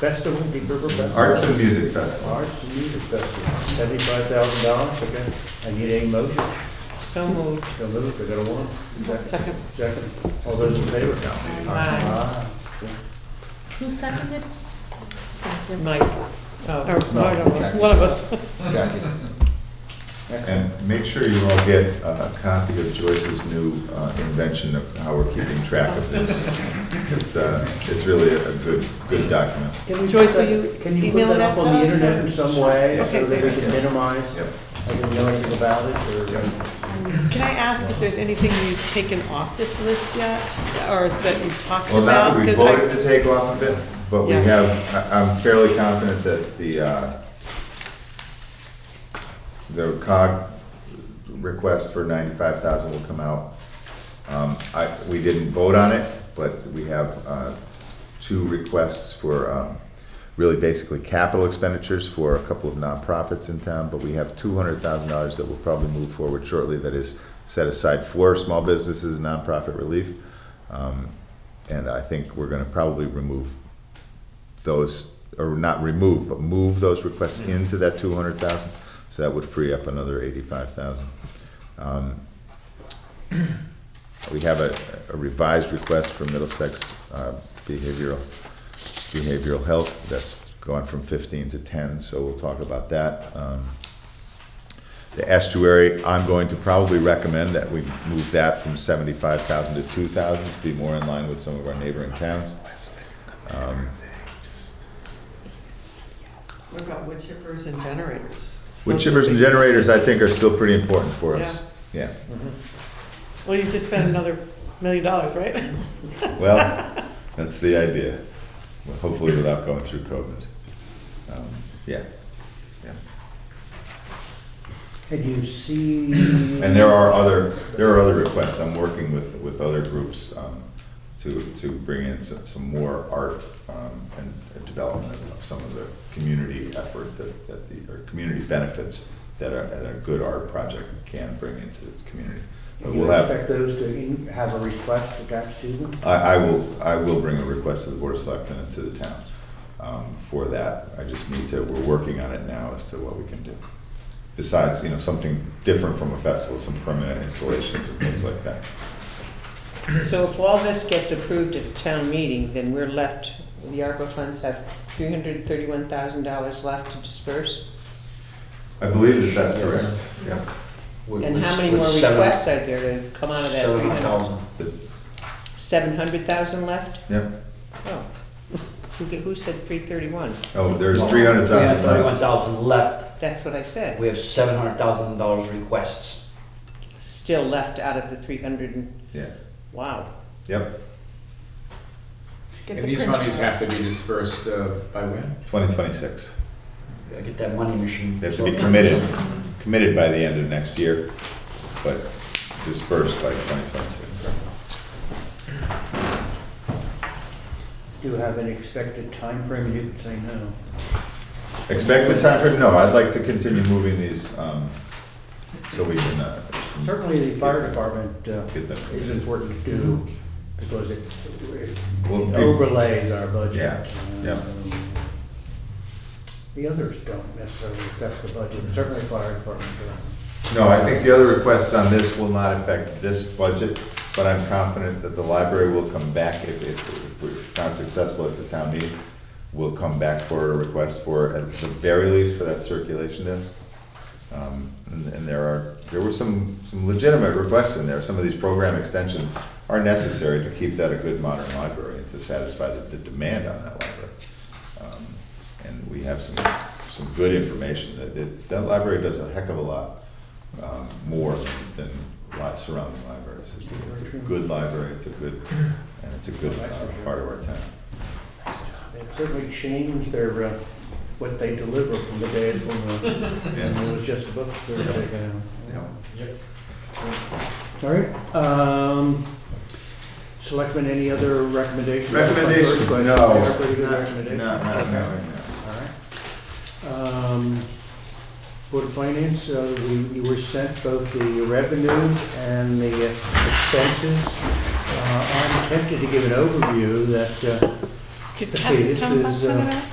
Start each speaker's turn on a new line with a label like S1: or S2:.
S1: Festival, the River Festival.
S2: Arts and Music Festival.
S1: Arts and Music Festival, seventy-five thousand dollars, okay. I need a motion,
S3: So moved.
S1: so move, I got a one. Second,
S3: Second.
S1: second, all those in favor?
S3: Aye.
S1: Ah, okay.
S4: Who seconded? Thank you.
S3: Mike,
S1: uh,
S3: oh, or
S5: No,
S3: one of us-
S5: Jackie.
S3: one of us.
S5: Jackie.
S1: Excellent.
S2: And make sure you all get a copy of Joyce's new uh, invention of how we're keeping track of this. It's, uh, it's really a good, good document.
S1: Can we
S3: Joyce,
S1: put that-
S3: will you
S1: Can you put
S3: email
S1: that
S3: that
S1: up
S3: to
S1: on the
S3: us, or-
S1: internet in some way,
S3: Okay.
S1: so that we can minimize,
S2: Yep.
S1: I didn't know anything about it, or?
S3: Can I ask if there's anything you've taken off this list yet, or that you've talked
S2: Well, now
S3: about?
S2: that we
S3: 'Cause I-
S2: voted to take off of it, but we
S3: Yeah.
S2: have, I- I'm fairly confident that the, uh, the cog request for ninety-five thousand will come out. Um, I, we didn't vote on it, but we have, uh, two requests for, um, really basically capital expenditures for a couple of nonprofits in town, but we have two hundred thousand dollars that will probably move forward shortly that is set aside for small businesses, and nonprofit relief. Um, and I think we're gonna probably remove those, or not remove, but move those requests into that two hundred thousand. So that would free up another eighty-five thousand. Um, We have a a revised request for Middlesex uh, Behavioral, Behavioral Health. That's gone from fifteen to ten, so we'll talk about that. Um, the estuary, I'm going to probably recommend that we move that from seventy-five thousand to two thousand, to be more in line with some of our neighboring towns. Um,
S3: What about wood chippers and generators?
S2: Wood chippers and generators, I think, are still pretty important for us. Yeah,
S3: Well, you've just spent another million dollars, right?
S2: well, that's the idea, Well, hopefully without going through COVID. Um, Yeah, yeah.
S1: Can you see?
S2: And there are other, there are other requests, I'm working with, with other groups um, to, to bring in some, some more art um, and and development of some of the community effort that, that the, or community benefits that a, that a good art project can bring into the community. But
S1: Do
S2: we'll
S1: you
S2: have,
S1: expect those to in- have a request attached to them?
S2: I, I will, I will bring a request to the Board of Selectmen and to the town um, for that. I just need to, we're working on it now as to what we can do. Besides, you know, something different from a festival, some permanent installations and things like that.
S6: So if all this gets approved at a town meeting, then we're left, the ARPA funds have three hundred and thirty-one thousand dollars left to disperse?
S2: I believe that that's correct. Yeah.
S5: With-
S6: And
S5: with-
S6: how many
S5: with
S6: more
S5: seven-
S6: requests are there to come out of that three
S5: Seven
S6: hundred?
S5: thousand.
S6: Seven hundred thousand left?
S2: Yeah.
S6: Oh, who, ge- who said three thirty-one?
S2: Oh, there's
S5: Well,
S2: three hundred
S5: We have thirty-one
S2: thousand.
S5: thousand left.
S6: That's what I said,
S5: We have seven hundred thousand dollars requests.
S6: still left out of the three hundred and,
S2: Yeah,
S6: wow.
S2: yep,
S3: Get
S7: And
S3: the
S7: these
S3: print
S7: monies
S3: out.
S7: have to be dispersed uh, by when?
S2: twenty twenty-six.
S5: Gotta Get that money machine.
S2: They have to be committed, committed by the end of next year, but dispersed by twenty twenty-six.
S1: Do you have an expected time frame? You can say no.
S2: Expect the timeframe, no, I'd like to continue moving these, um, so we can, uh.
S1: Certainly, the fire department uh,
S2: Get them.
S1: is important to do because it it
S2: Well, we-
S1: overlays our budget.
S2: Yeah, yeah.
S1: Um, The others don't necessarily affect the budget, certainly fire department does.
S2: No, I think the other requests on this will not affect this budget, but I'm confident that the library will come back if, if if it's not successful at the town meeting. We'll come back for a request for, at the very least, for that circulation desk. Um, and, and there are, there were some, some legitimate requests in there. Some of these program extensions are necessary to keep that a good modern library and to satisfy the, the demand on that library. Um, And we have some, some good information. That, that, that library does a heck of a lot, um, more than lot surrounding libraries. It's a, it's a good library, it's a good, and it's a good uh, part of our town.
S1: They certainly changed their, uh, what they deliver from the days when uh, when
S2: Yeah.
S1: it was just books that were taken out.
S2: Yeah.
S1: All right, um, Selectmen, any other recommendations?
S2: Recommendations,
S1: They
S2: no.
S1: are pretty good recommendations.
S2: No, no, no, no.
S1: All right. Um, Board of Finance, uh, we- you were sent both the revenues and the uh, expenses. Uh, I'm tempted to give an overview that uh, Did
S6: Let's see,
S1: Tom-
S6: this
S1: Tom
S6: is,
S1: Hudson
S6: uh,
S1: about?